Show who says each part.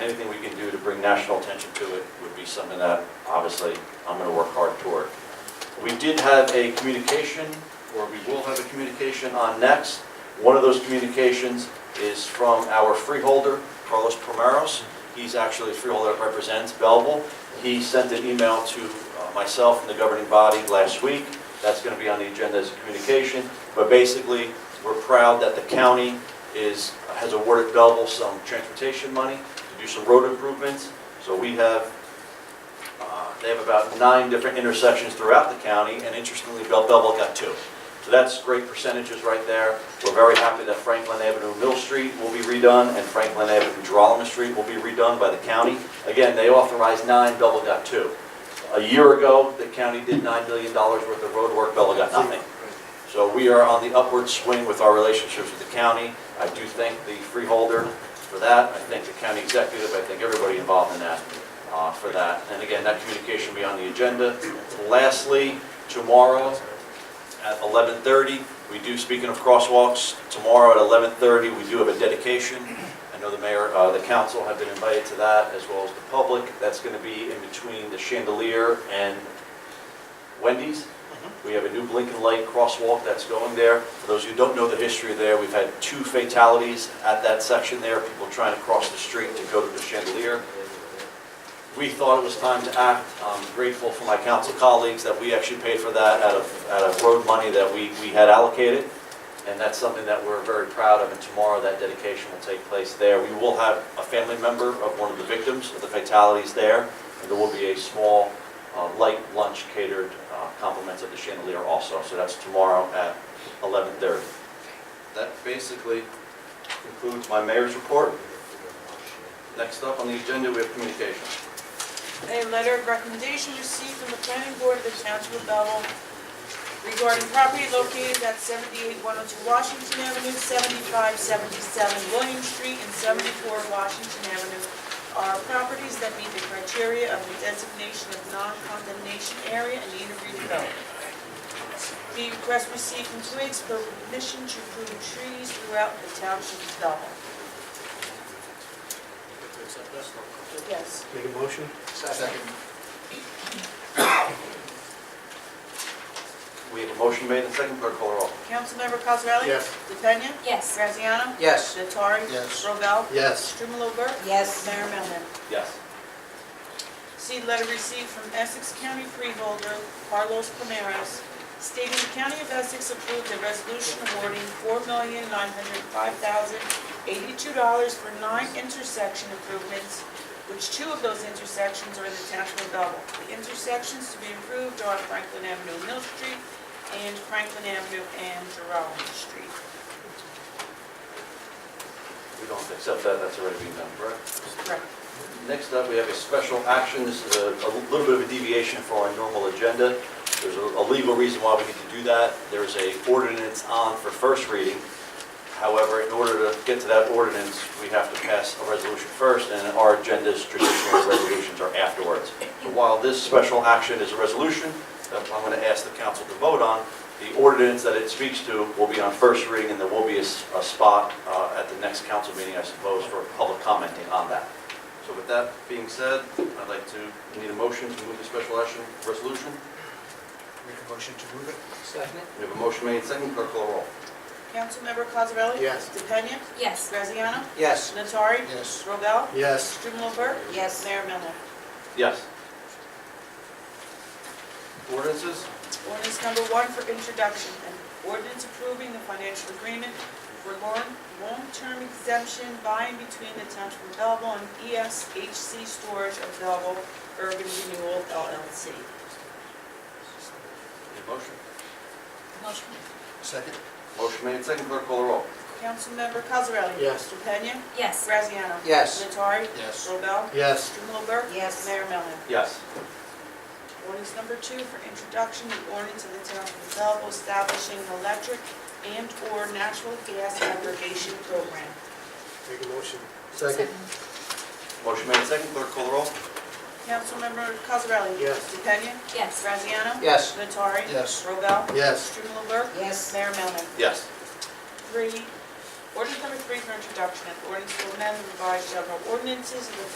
Speaker 1: national attention to it would be something that, obviously, I'm gonna work hard toward. We did have a communication, or we will have a communication on next. One of those communications is from our freeholder, Carlos Primeros. He's actually a freeholder that represents Belleville. He sent an email to uh, myself and the governing body last week. That's going to be on the agenda as a communication. But basically, we're proud that the county is, has awarded Belleville some transportation money to do some road improvements. So we have uh, They have about nine different intersections throughout the county, and interestingly, Bell Belleville got two. So that's great percentages right there. We're very happy that Franklin Avenue Mill Street will be redone, and Franklin Avenue Geralamo Street will be redone by the county. Again, they authorized nine, Belleville got two. A year ago, the county did $9 million worth of road work, Belleville got nothing. So we are on the upward swing with our relationships with the county. I do thank the freeholder for that, I thank the county executive, I thank everybody involved in that, uh, for that. And again, that communication will be on the agenda. Lastly, tomorrow at 11:30, we do, speaking of crosswalks, tomorrow at 11:30, we do have a dedication. I know the mayor, uh, the council have been invited to that, as well as the public. That's going to be in between the chandelier and Wendy's. We have a new blinking light crosswalk that's going there. For those who don't know the history there, we've had two fatalities at that section there, people trying to cross the street to go to the chandelier. We thought it was time to act. I'm grateful for my council colleagues that we actually paid for that out of, out of road money that we, we had allocated. And that's something that we're very proud of, and tomorrow that dedication will take place there. We will have a family member of one of the victims of the fatalities there, and there will be a small uh, light lunch catered uh, compliments of the chandelier also, so that's tomorrow at 11:30. That basically concludes my mayor's report. Next up on the agenda, we have communications.
Speaker 2: A letter of recommendation received from the planning board of the township of Belleville regarding property located at 78102 Washington Avenue, 7577 William Street, and 74 Washington Avenue are properties that meet the criteria of the designation of non-condemnation area and need of redevelopment. The request received from Twigs for permission to prune trees throughout the township of Belleville. Yes.
Speaker 3: Make a motion?
Speaker 4: Second.
Speaker 1: We have a motion made and second, clerk call the roll.
Speaker 2: Councilmember Cosrally?
Speaker 3: Yes.
Speaker 2: DePena?
Speaker 5: Yes.
Speaker 2: Graziano?
Speaker 4: Yes.
Speaker 2: Nattari?
Speaker 4: Yes.
Speaker 2: Robel?
Speaker 3: Yes.
Speaker 2: Strumelob?
Speaker 5: Yes.
Speaker 2: Mayor Melham?
Speaker 1: Yes.
Speaker 2: See letter received from Essex County freeholder Carlos Primeros stating the County of Essex approved a resolution awarding $4,905,082 for nine intersection improvements, which two of those intersections are in the township of Belleville. The intersections to be improved are Franklin Avenue, and Mill Street, and Franklin Avenue and Jerome Street.
Speaker 1: We don't accept that, that's already been done, correct?
Speaker 2: Correct.
Speaker 1: Next up, we have a special action, this is a a little bit of a deviation from our normal agenda. There's a a legal reason why we need to do that. There's a ordinance on for first reading. However, in order to get to that ordinance, we have to pass a resolution first, and our agendas, traditional resolutions are afterwards. While this special action is a resolution that I'm going to ask the council to vote on, the ordinance that it speaks to will be on first reading, and there will be a s- a spot uh, at the next council meeting, I suppose, for public commenting on that. So with that being said, I'd like to, need a motion to move the special action resolution.
Speaker 4: Make a motion to move it?
Speaker 3: Second?
Speaker 1: We have a motion made, second, clerk call the roll.
Speaker 2: Councilmember Cosarelli?
Speaker 3: Yes.
Speaker 2: DePena?
Speaker 5: Yes.
Speaker 2: Graziano?
Speaker 4: Yes.
Speaker 2: Natari?
Speaker 4: Yes.
Speaker 2: Robel?
Speaker 3: Yes.
Speaker 2: Strumelob?
Speaker 5: Yes.
Speaker 2: Mayor Melham?
Speaker 1: Yes. Ordinances?
Speaker 2: Ordinance number one for introduction, an ordinance approving the financial agreement for long- long-term exemption by and between the Township of Belleville and E ESHC Storage of Belleville Urban Renewal LLC.
Speaker 1: Need a motion?
Speaker 5: Motion.
Speaker 4: Second?
Speaker 1: Motion made, second, clerk call the roll.
Speaker 2: Councilmember Cosarelli?
Speaker 3: Yes.
Speaker 2: DePena?
Speaker 5: Yes.
Speaker 2: Graziano?
Speaker 4: Yes.
Speaker 2: Natari?
Speaker 4: Yes.
Speaker 2: Robel?
Speaker 3: Yes.
Speaker 2: Strumelob?
Speaker 5: Yes.
Speaker 2: Mayor Melham?
Speaker 1: Yes.
Speaker 2: Ordinance number two for introduction, the ordinance of the Township of Belleville establishing an electric and/or natural gas aggregation program.
Speaker 3: Make a motion? Second?
Speaker 1: Motion made, second, clerk call the roll.
Speaker 2: Councilmember Cosarelli?
Speaker 3: Yes.
Speaker 2: DePena?
Speaker 5: Yes.
Speaker 2: Graziano?
Speaker 4: Yes.
Speaker 2: Nattari?
Speaker 4: Yes.
Speaker 2: Robel?
Speaker 3: Yes.
Speaker 2: Strumelob?
Speaker 5: Yes.
Speaker 2: Mayor Melham?
Speaker 1: Yes.
Speaker 2: Three, ordinance number three for introduction, an ordinance to amend the revised general ordinances of the